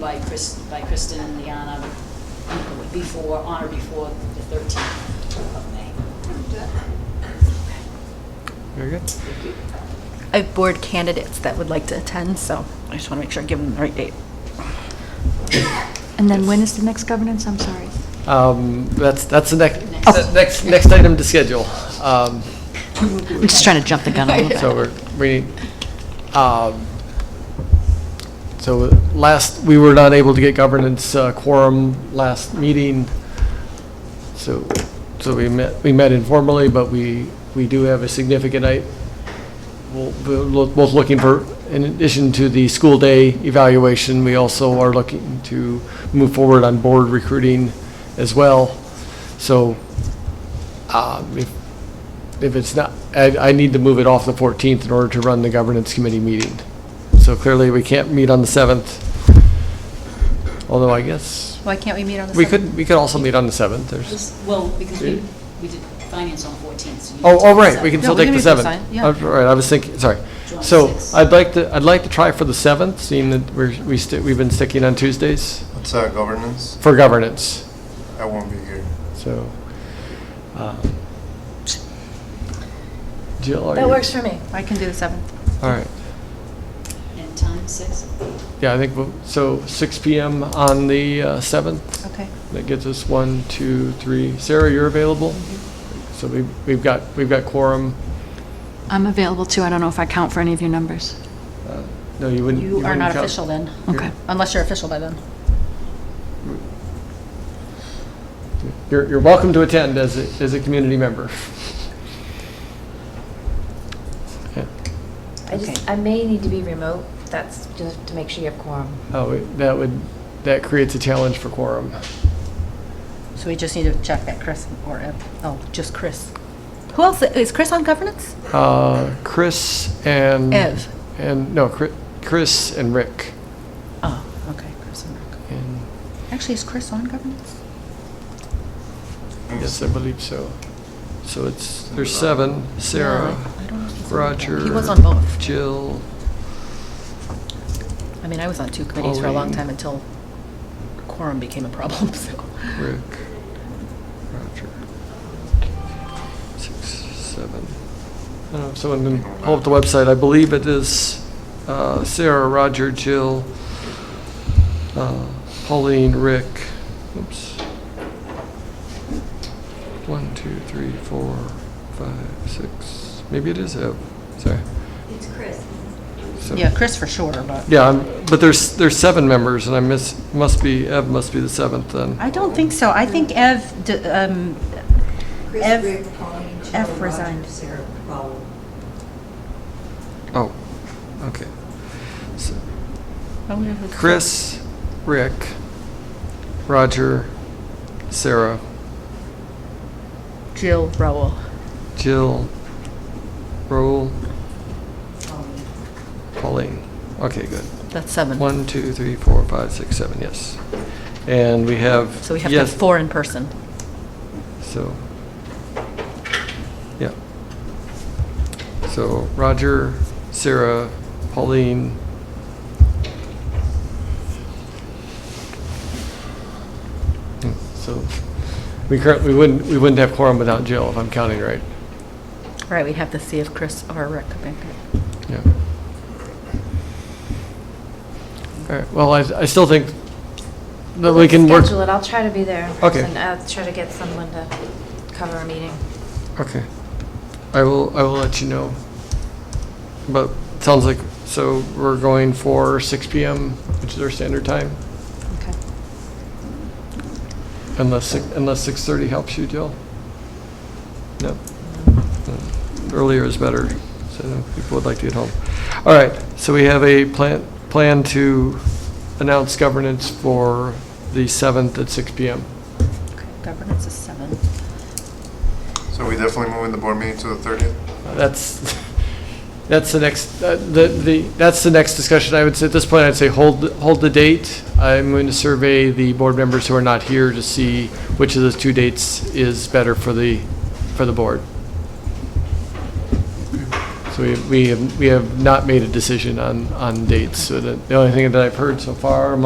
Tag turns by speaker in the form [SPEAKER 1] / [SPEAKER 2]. [SPEAKER 1] by Chris, by Kristen and Liana before, on or before the thirteenth of May.
[SPEAKER 2] Very good.
[SPEAKER 3] I have board candidates that would like to attend, so I just want to make sure I give them the right date.
[SPEAKER 4] And then when is the next governance? I'm sorry.
[SPEAKER 2] Um, That's, that's the next,
[SPEAKER 1] Next.
[SPEAKER 2] the next, next item to schedule. Um,
[SPEAKER 4] I'm just trying to jump the gun a little bit.
[SPEAKER 2] So we're, we, um, so last, we were not able to get governance uh, quorum last meeting. So, so we met, we met informally, but we, we do have a significant night. We'll- We're lo- both looking for, in addition to the school day evaluation, we also are looking to move forward on board recruiting as well. So, um, if if it's not, I, I need to move it off the 14th in order to run the governance committee meeting. So clearly, we can't meet on the 7th, although I guess,
[SPEAKER 3] Why can't we meet on the 7th?
[SPEAKER 2] we could, we could also meet on the 7th, there's,
[SPEAKER 1] This- Well, because we, we did finance on fourteenth, so you.
[SPEAKER 2] oh,
[SPEAKER 1] can
[SPEAKER 2] oh,
[SPEAKER 1] take
[SPEAKER 2] right,
[SPEAKER 1] this
[SPEAKER 2] we can
[SPEAKER 1] up.
[SPEAKER 2] still
[SPEAKER 3] No, we
[SPEAKER 2] take
[SPEAKER 3] can
[SPEAKER 2] the
[SPEAKER 3] meet the
[SPEAKER 2] 7th.
[SPEAKER 3] sign- yeah.
[SPEAKER 2] All Right, I was thinking, sorry.
[SPEAKER 1] July
[SPEAKER 2] So
[SPEAKER 1] sixth.
[SPEAKER 2] I'd like to, I'd like to try for the 7th, seeing that we're, we sti- we've been sticking on Tuesdays
[SPEAKER 5] What's uh, governance?
[SPEAKER 2] for governance,
[SPEAKER 5] I won't be here.
[SPEAKER 2] so. um, Jill, are
[SPEAKER 3] That
[SPEAKER 2] you-
[SPEAKER 3] works for me. I can do the 7th.
[SPEAKER 2] All right.
[SPEAKER 1] And time, six?
[SPEAKER 2] Yeah, I think, we'll- so 6 PM on the uh, 7th,
[SPEAKER 3] Okay.
[SPEAKER 2] that gets us one, two, three. Sarah, you're available? So we- we've got, we've got quorum.
[SPEAKER 4] I'm available too. I don't know if I count for any of your numbers.
[SPEAKER 2] Uh, No, you wouldn't.
[SPEAKER 3] You are
[SPEAKER 2] wouldn't
[SPEAKER 3] not
[SPEAKER 2] count.
[SPEAKER 3] official then,
[SPEAKER 4] Okay.
[SPEAKER 3] unless you're official by then.
[SPEAKER 2] You're, you're welcome to attend as a, as a community member.
[SPEAKER 6] I just, I may need to be remote, that's just to make sure you have quorum.
[SPEAKER 2] Oh, it- that would, that creates a challenge for quorum.
[SPEAKER 3] So we just need to check that Chris or, Ed- oh, just Chris. Who else? Is Chris on governance?
[SPEAKER 2] Uh, Chris and.
[SPEAKER 3] Ev.
[SPEAKER 2] And, no, Chri- Chris and Rick.
[SPEAKER 3] Oh, okay, Chris and Rick.
[SPEAKER 2] And
[SPEAKER 3] Actually, is Chris on governance?
[SPEAKER 2] Yes, I believe so. So it's, there's seven, Sarah,
[SPEAKER 3] No, I don't know if he's on
[SPEAKER 2] Roger.
[SPEAKER 3] governance. He was on both.
[SPEAKER 2] Jill,
[SPEAKER 3] I mean, I was on two committees for a long
[SPEAKER 2] Pauline.
[SPEAKER 3] time until quorum became a problem, so.
[SPEAKER 2] Rick, Roger. Six, seven. I don't know if someone can pull up the website. I believe it is uh, Sarah, Roger, Jill, uh, Pauline, Rick. Oops. One, two, three, four, five, six. Maybe it is Ev. Sorry. It's Chris.
[SPEAKER 3] Yeah, Chris for sure, but.
[SPEAKER 2] Yeah, I'm- but there's, there's seven members, and I miss, must be, Ev must be the seventh then.
[SPEAKER 3] I don't think so. I think Ev, d- um, Ev- F resigned.
[SPEAKER 7] Sarah Powell.
[SPEAKER 2] Oh, okay. So
[SPEAKER 3] I wonder who-
[SPEAKER 2] Chris, Rick, Roger, Sarah,
[SPEAKER 3] Jill Rowell.
[SPEAKER 2] Jill, Raul, Pauline. Okay, good.
[SPEAKER 3] That's seven.
[SPEAKER 2] One, two, three, four, five, six, seven, yes. And we have.
[SPEAKER 3] So we have to have
[SPEAKER 2] yes,
[SPEAKER 3] four in person.
[SPEAKER 2] So, yeah. So Roger, Sarah, Pauline. Yeah, So we currently, we wouldn't, we wouldn't have quorum without Jill, if I'm counting right.
[SPEAKER 3] Right, we'd have to see if Chris or Rick could make it.
[SPEAKER 2] Yeah. All right, well, I, I still think that we can work.
[SPEAKER 6] Schedule it, I'll try to be there.
[SPEAKER 2] Okay.
[SPEAKER 6] And I'll try to get someone to cover a meeting.
[SPEAKER 2] Okay. I will, I will let you know. But it sounds like, so we're going for six PM, which is our standard time,
[SPEAKER 3] Okay.
[SPEAKER 2] unless, six- unless six-thirty helps you, Jill? No? No. Earlier is better, so people would like to get home. All right, so we have a plan, plan to announce governance for the seventh at six PM.
[SPEAKER 3] Okay, Governance is seven.
[SPEAKER 5] So we definitely moving the board meeting to the 30th?
[SPEAKER 2] That's, that's the next, uh, the, the, that's the next discussion. I would say, at this point, I'd say hold, hold the date. I'm going to survey the board members who are not here to see which of those two dates is better for the, for the board. So we, we have, we have not made a decision on, on dates. So the, the only thing that I've heard so far among